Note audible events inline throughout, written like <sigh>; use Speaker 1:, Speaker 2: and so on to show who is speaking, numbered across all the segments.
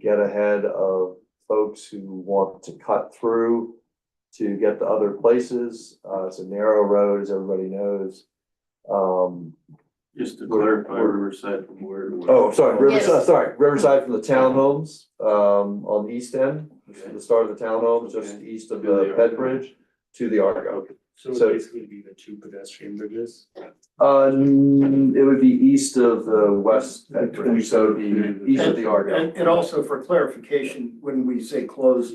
Speaker 1: get ahead of folks who want to cut through to get to other places. Uh, it's a narrow road, as everybody knows. Um,
Speaker 2: Just to
Speaker 1: We're-
Speaker 2: clarify,
Speaker 1: we're-
Speaker 2: Riverside from where to where?
Speaker 1: oh, sorry, Riverside,
Speaker 3: Yes.
Speaker 1: sorry, Riverside from the townhomes, um, on the east end,
Speaker 2: Okay.
Speaker 1: the start of the townhomes, just
Speaker 2: Okay.
Speaker 1: east of the Ped Bridge to the Argo.
Speaker 4: So it
Speaker 1: So-
Speaker 4: would basically be the two pedestrian bridges.
Speaker 1: Uh, mm, it would be east of the west Ped Bridge, so it'd be east of the Argo.
Speaker 5: And, and also for clarification, when we say close,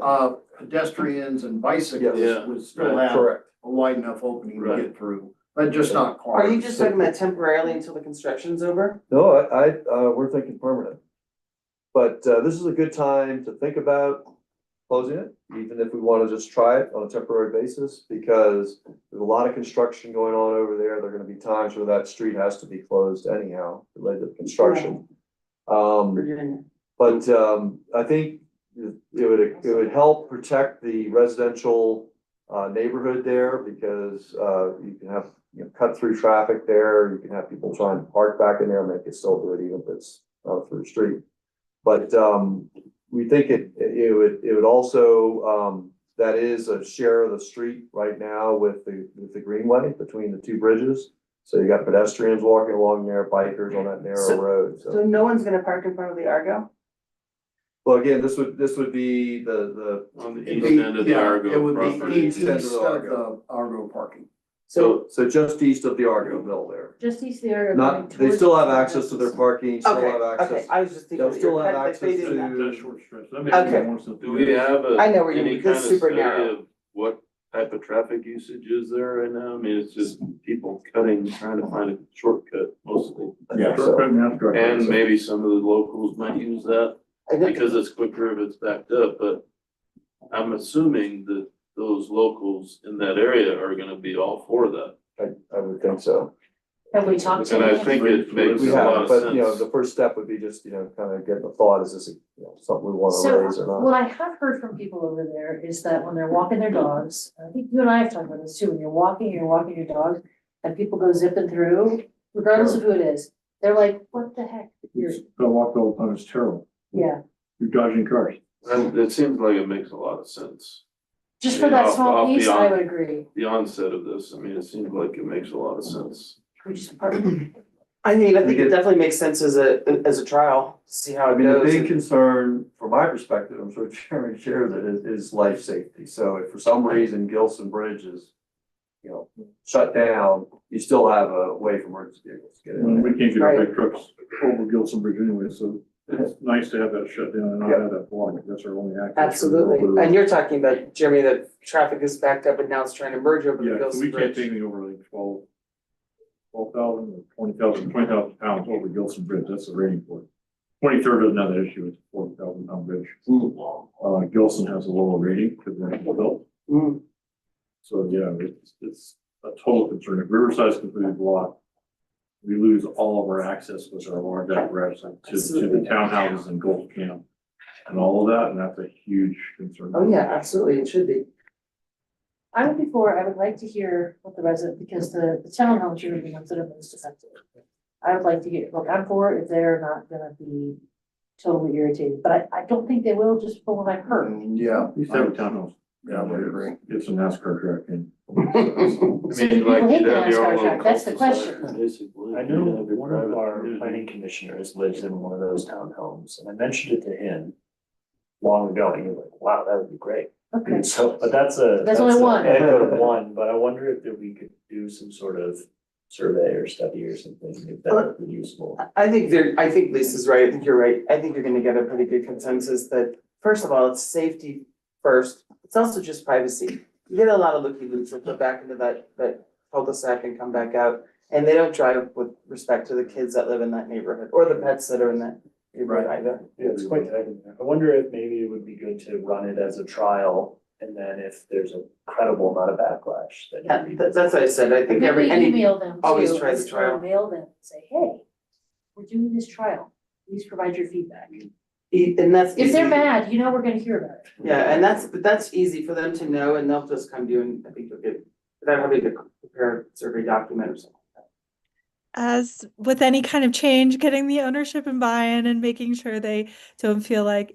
Speaker 5: uh, pedestrians and
Speaker 2: Yeah.
Speaker 5: bicyclists would still have a
Speaker 1: Correct.
Speaker 5: wide enough opening to
Speaker 2: Right.
Speaker 5: get through, but just not cars.
Speaker 3: Are you just talking about temporarily until the construction's over?
Speaker 1: No, I, I, uh, we're thinking permanent. But, uh, this is a good time to think about closing it, even if we wanna just try it on a temporary basis, because there's a lot of construction going on over there, there're gonna be times where that street has to be closed anyhow, related to construction. Um.
Speaker 3: Virginia?
Speaker 1: But um, I think it would, it would help protect the residential uh neighborhood there because uh you can have, you know, cut through traffic there. You can have people trying to park back in there and they can still do it even if it's not through the street. But um, we think it, it would, it would also, um, that is a share of the street right now with the, with the greenway between the two bridges. So you got pedestrians walking along there, bikers on that narrow
Speaker 3: So-
Speaker 1: road,
Speaker 3: So no one's gonna park in front of the Argo?
Speaker 1: well, again, this would, this would be the,
Speaker 2: On the
Speaker 5: It'd
Speaker 2: east
Speaker 5: be-
Speaker 2: end of the
Speaker 5: yeah, It
Speaker 2: Argo
Speaker 5: would be
Speaker 2: property.
Speaker 5: east
Speaker 1: East end of the
Speaker 5: of
Speaker 1: Argo.
Speaker 5: the Argo parking.
Speaker 1: the,
Speaker 3: So
Speaker 1: so just east of the Argo Mill there.
Speaker 6: Just east of the area.
Speaker 1: Not, they still have access to their parking, still
Speaker 3: Okay,
Speaker 1: have
Speaker 3: okay,
Speaker 1: access.
Speaker 3: I was just thinking
Speaker 1: They'll
Speaker 3: that
Speaker 1: still
Speaker 3: you're
Speaker 1: have
Speaker 3: cut- that they
Speaker 1: access
Speaker 3: didn't.
Speaker 1: to-
Speaker 4: That short stretch, that makes
Speaker 3: Okay.
Speaker 4: more sense. than
Speaker 2: Do we have a?
Speaker 3: I know where you
Speaker 2: any
Speaker 3: mean, this
Speaker 2: kind
Speaker 3: is
Speaker 2: of
Speaker 3: super
Speaker 2: study
Speaker 3: narrow.
Speaker 2: of What type of traffic usage is there right now? I mean, it's just people cutting, trying to find a shortcut mostly.
Speaker 1: I
Speaker 4: Yeah,
Speaker 1: think so.
Speaker 2: And maybe some of the locals might use that
Speaker 3: I think-
Speaker 2: because it's quicker if it's backed up, but I'm assuming that those locals in that area are gonna be all for that.
Speaker 1: I, I would think so.
Speaker 6: Have we talked to
Speaker 2: And I
Speaker 6: them?
Speaker 2: think it makes
Speaker 1: We
Speaker 2: a lot
Speaker 1: have,
Speaker 2: of
Speaker 1: but you know,
Speaker 2: sense.
Speaker 1: the first step would be just, you know, kind of get the thought, is this, you know, something we wanna
Speaker 6: So,
Speaker 1: raise or not?
Speaker 6: what I have heard from people over there is that when they're walking their dogs, I think you and I have talked about this too, when you're walking, you're walking your dog, and people go zipping through, regardless of who it is, they're like, what the heck? You're,
Speaker 4: The walk all the time is terrible.
Speaker 6: yeah,
Speaker 4: You're dodging cars.
Speaker 2: And it seems like it makes a lot of sense.
Speaker 6: just for
Speaker 2: Yeah,
Speaker 6: that
Speaker 2: I'll- I'll
Speaker 6: small
Speaker 2: be
Speaker 6: piece, I
Speaker 2: on-
Speaker 6: would agree,
Speaker 2: the onset of this, I mean, it seems like it makes a lot
Speaker 7: <laughs>
Speaker 2: of sense.
Speaker 6: we just park.
Speaker 3: I mean, I think
Speaker 1: Because-
Speaker 3: it definitely makes sense as a, as a trial, see how
Speaker 1: I
Speaker 3: it
Speaker 1: mean, the big
Speaker 3: goes.
Speaker 1: concern from my perspective, I'm sure <laughs> Chairman shares it, is, is life safety. So if for some reason Gilson Bridge is, you know, shut down, you still have a way for emergency vehicles to get in.
Speaker 4: And
Speaker 1: there.
Speaker 4: we can't get our big trucks over Gilson Bridge anyway, so it's nice to have that shut down and not have that block. That's our only access.
Speaker 3: Absolutely, and you're talking about, Jeremy, that traffic is backed up and now it's trying to merge over the
Speaker 4: Yeah, so
Speaker 3: Gilson
Speaker 4: we can't take
Speaker 3: Bridge.
Speaker 4: anything over like twelve, twelve thousand or twenty thousand, twenty thousand pounds over Gilson Bridge. That's the rating for it. Twenty-third doesn't have that issue. It's a forty thousand pound bridge. Uh, Gilson has a lower rating because they're built.
Speaker 3: Mm,
Speaker 4: So, yeah, it's, it's a total concern. If Riverside's completely blocked, we lose all of our access, which are large apparatus like, to, to the townhouses and Gold Camp and all of that, and that's a huge concern.
Speaker 3: Oh, yeah, absolutely, it should be.
Speaker 6: I would be for, I would like to hear what the resident, because the, the townhomes are the ones that are most affected. I would like to get, look, I'm for if they're not gonna be totally irritated, but I, I don't think they will just from what I've heard.
Speaker 2: Mm.
Speaker 5: Yeah.
Speaker 4: These have townhouse.
Speaker 5: Yeah, I would agree.
Speaker 4: It's a NASCAR track and.
Speaker 6: So do people hate the NASCAR track? That's the question.
Speaker 7: I know one of our planning commissioners lives in one of those townhomes, and I mentioned it to him long ago, and he was like, wow, that would be great.
Speaker 6: Okay,
Speaker 7: So, but that's a.
Speaker 6: That's only
Speaker 7: a
Speaker 6: one.
Speaker 7: anecdote of one, but I wonder if that we could do some sort of survey or study or something, if that would be useful.
Speaker 3: I- I think there, I think Lisa's right, I think you're right, I think you're gonna get a pretty good consensus that, first of all, it's safety first, it's also just privacy. You get a lot of looky loops that go back into that, that cul-de-sac and come back out, and they don't drive with respect to the kids that live in that neighborhood, or the pets that are in that neighborhood either.
Speaker 7: Yeah, it's quite tight in there. I wonder if maybe it would be good to run it as a trial, and then if there's a credible amount of backlash, then.
Speaker 3: Yeah, that- that's what I said, I think every, any,
Speaker 6: Maybe Email them
Speaker 3: always
Speaker 6: too,
Speaker 3: try the
Speaker 6: or
Speaker 3: trial.
Speaker 6: Mail them, and say, hey, we're doing this trial, please provide your feedback.
Speaker 3: e- and that's
Speaker 6: If they're
Speaker 3: easy.
Speaker 6: mad, you know we're gonna hear about it.
Speaker 3: Yeah, and that's, but that's easy for them to know, and they'll just come to you, and I think you'll get, without having to prepare a survey document or something.
Speaker 8: as with any kind of change, getting the ownership and buy-in and making sure they don't feel like